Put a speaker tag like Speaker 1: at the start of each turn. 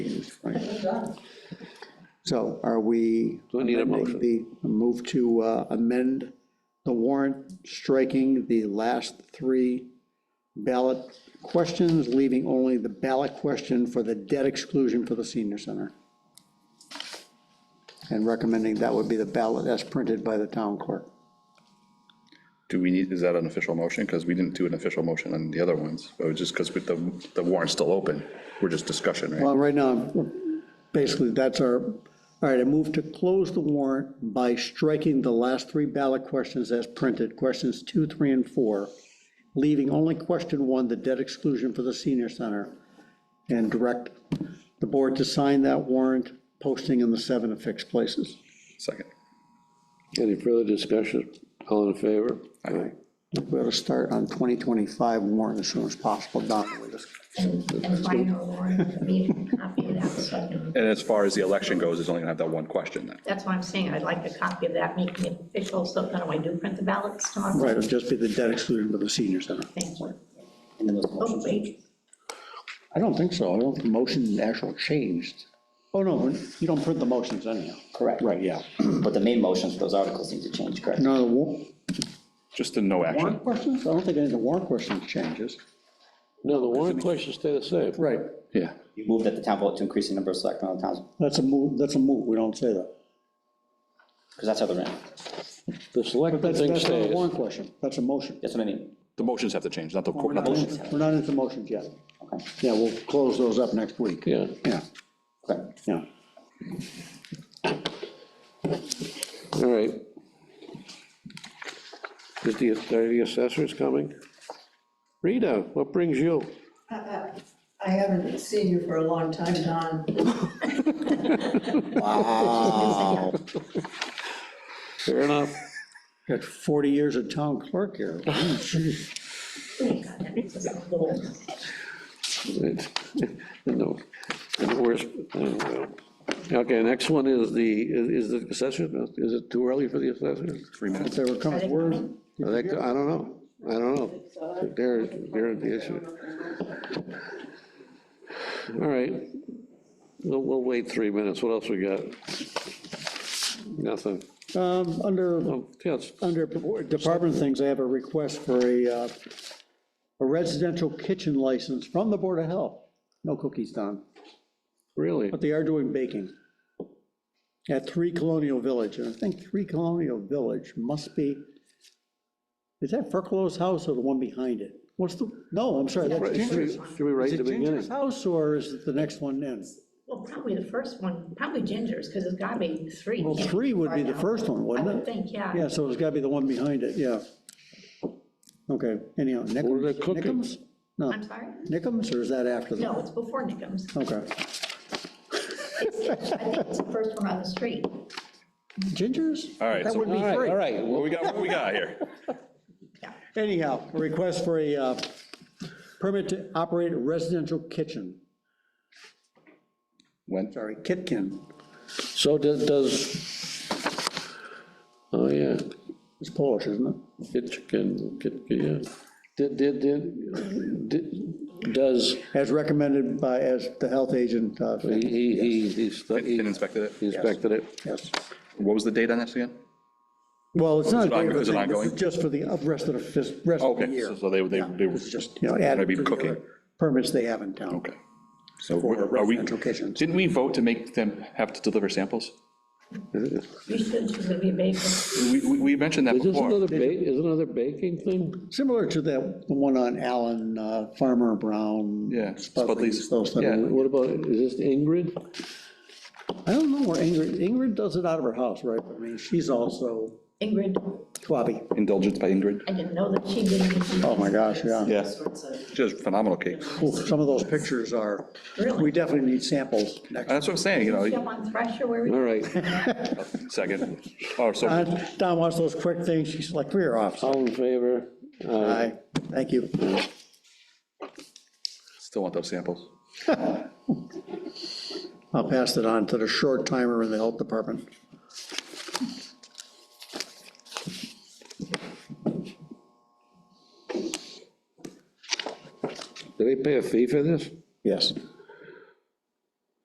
Speaker 1: done.
Speaker 2: So are we?
Speaker 3: Do I need a
Speaker 2: amending
Speaker 3: motion?
Speaker 2: The move to uh, amend the warrant, striking the last three ballot questions, leaving only the ballot question for the debt exclusion for the senior center. And recommending that would be the ballot as printed by the town clerk.
Speaker 4: Do we need, is that an official motion? Because we didn't do an official motion on the other ones, but it was just because the, the warrant's still open. We're just discussion, right?
Speaker 2: Well, right now, basically, that's our, all right, I move to close the warrant by striking the last three ballot questions as printed, questions two, three, and four, leaving only question one, the debt exclusion for the senior center, and direct the board to sign that warrant, posting in the seven affixed places.
Speaker 4: Second.
Speaker 3: Any further discussion? All in favor?
Speaker 4: Aye.
Speaker 2: We ought to start on 2025 warrant as soon as possible, Don, with this.
Speaker 1: And and final warrant, meeting copy of that, so
Speaker 4: And as far as the election goes, it's only gonna have that one question then.
Speaker 1: that's why I'm saying I'd like a copy of that making it official, so that when I do print the ballots tomorrow.
Speaker 2: Right, it'll just be the debt exclusion for the senior center.
Speaker 1: Thank you.
Speaker 5: And then those
Speaker 1: Oh,
Speaker 5: motions.
Speaker 1: wait,
Speaker 2: I don't think so. I don't think the motion actually changed. Oh, no, you don't print the motions anyhow.
Speaker 5: Correct.
Speaker 2: Right, yeah.
Speaker 5: But the main motions, for those articles need to change, correct?
Speaker 2: No, the wa-
Speaker 4: Just the no action.
Speaker 2: warrant questions? I don't think any of the warrant questions changes.
Speaker 3: No, the warrant questions stay the same.
Speaker 2: Right.
Speaker 4: Yeah.
Speaker 5: You moved at the town vote to increase the number of selectmen on the towns,
Speaker 2: That's a move, that's a move. We don't say that.
Speaker 5: because that's how they're in.
Speaker 3: The
Speaker 2: But
Speaker 3: selectmen
Speaker 2: that's,
Speaker 3: thing
Speaker 2: that's not a
Speaker 3: stays.
Speaker 2: warrant question. That's a motion.
Speaker 5: That's what I mean.
Speaker 4: The motions have to change, not the,
Speaker 2: We're
Speaker 4: not
Speaker 2: not,
Speaker 4: the
Speaker 2: in- we're not into motions yet.
Speaker 5: Okay,
Speaker 2: Yeah, we'll close those up next week.
Speaker 3: Yeah,
Speaker 2: Yeah,
Speaker 5: okay.
Speaker 2: yeah.
Speaker 3: all right. Is the, are the assessors coming? Rita, what brings you?
Speaker 6: I haven't seen you for a long time, Don.
Speaker 5: Wow.
Speaker 3: Fair enough.
Speaker 2: Got 40 years of town clerk here.
Speaker 1: oh God, that makes us a little.
Speaker 3: It's- And the and the worst, uh, okay, next one is the, is the assessor, is it too early for the assessor?
Speaker 4: three
Speaker 2: If
Speaker 4: minutes.
Speaker 2: they were coming, word.
Speaker 3: I think, I don't know, I don't know. They're, they're the issue. All right, we'll, we'll wait three minutes, what else we got? Nothing.
Speaker 2: Um, Under
Speaker 3: Oh, Yes,
Speaker 2: Under department things, I have a request for a, uh, a residential kitchen license from the Board of Health. No cookies, Don,
Speaker 3: really,
Speaker 2: but they are doing baking at Three Colonial Village, and I think Three Colonial Village must be, is that Furclow's house or the one behind it? What's the, no, I'm sorry, that's
Speaker 3: Right, should we
Speaker 2: Ginger's.
Speaker 3: should we write
Speaker 2: Is
Speaker 3: at the
Speaker 2: it Ginger's
Speaker 3: beginning?
Speaker 2: house, or is it the next one in?
Speaker 1: Well, probably the first one, probably Ginger's, because it's gotta be three.
Speaker 2: Well,
Speaker 1: can't be
Speaker 2: three would
Speaker 1: far
Speaker 2: be the
Speaker 1: now.
Speaker 2: first one,
Speaker 1: I
Speaker 2: wouldn't
Speaker 1: would
Speaker 2: it?
Speaker 1: think, yeah.
Speaker 2: Yeah, so it's gotta be the one behind it, yeah. Okay, anyhow,
Speaker 3: What are
Speaker 2: Nickums?
Speaker 3: they cooking?
Speaker 2: Nickums? No.
Speaker 1: I'm sorry?
Speaker 2: Nickums, or is that after them?
Speaker 1: No, it's before Nickums.
Speaker 2: Okay.
Speaker 1: I think it's the first one on the street.
Speaker 2: Gingers?
Speaker 4: All right,
Speaker 2: That
Speaker 4: so-
Speaker 2: would be
Speaker 3: All right,
Speaker 2: free.
Speaker 3: all right,
Speaker 4: What we got, what we got here?
Speaker 2: Anyhow, a request for a uh, permit to operate a residential kitchen,
Speaker 4: When?
Speaker 2: sorry, kitkin.
Speaker 3: so does- does, oh, yeah,
Speaker 2: It's Polish, isn't it?
Speaker 3: Kitchen, kitchen, yeah. Did, did, did, did- does,
Speaker 2: As recommended by, as the health agent, uh,
Speaker 3: he, he, he- he's- he
Speaker 4: Been inspected it?
Speaker 3: he inspected it?
Speaker 2: yes.
Speaker 4: What was the date on this again?
Speaker 2: Well, it's not. a
Speaker 4: Is it on-
Speaker 2: waiver
Speaker 4: is it
Speaker 2: thing, this
Speaker 4: ongoing?
Speaker 2: is Just for the rest of the, fis- rest of the
Speaker 4: Okay, so-
Speaker 2: year.
Speaker 4: so they, they, they,
Speaker 2: It's just, you know, added
Speaker 4: Maybe
Speaker 2: to the
Speaker 4: cooking.
Speaker 2: other permits they have in town.
Speaker 4: okay. So
Speaker 2: For
Speaker 4: are we,
Speaker 2: residential kitchens.
Speaker 4: didn't we vote to make them have to deliver samples?
Speaker 1: You should, she's gonna be a baker.
Speaker 4: We, we we mentioned that
Speaker 3: Is this
Speaker 4: before.
Speaker 3: another ba, is another baking thing?
Speaker 2: Similar to that, the one on Allen, uh, Farmer Brown.
Speaker 4: Yeah,
Speaker 2: Spudley's,
Speaker 4: Spudley's,
Speaker 2: those. type of-
Speaker 4: yeah.
Speaker 3: What about, is this Ingrid?
Speaker 2: I don't know where Ingrid, Ingrid does it out of her house, right? I mean, she's also
Speaker 1: Ingrid,
Speaker 2: Quabi.
Speaker 4: Indulgence by Ingrid.
Speaker 1: I didn't know that she did. anything.
Speaker 2: Oh, my gosh, yeah.
Speaker 4: Yeah. Just phenomenal cake.
Speaker 2: Ooh, Some of those pictures are,
Speaker 1: Really?
Speaker 2: we definitely need samples next.
Speaker 4: That's what I'm saying, you know,
Speaker 1: Jump on Thresher, where we,
Speaker 3: All right,
Speaker 4: second. Oh, so
Speaker 2: Uh, Don wants those quick things, she's like, we're off.
Speaker 3: all in favor? Aye.
Speaker 2: Aye, thank you.
Speaker 4: still want those samples.
Speaker 2: I'll pass it on to the short timer in the health department.
Speaker 3: Do they pay a fee for this?
Speaker 2: Yes.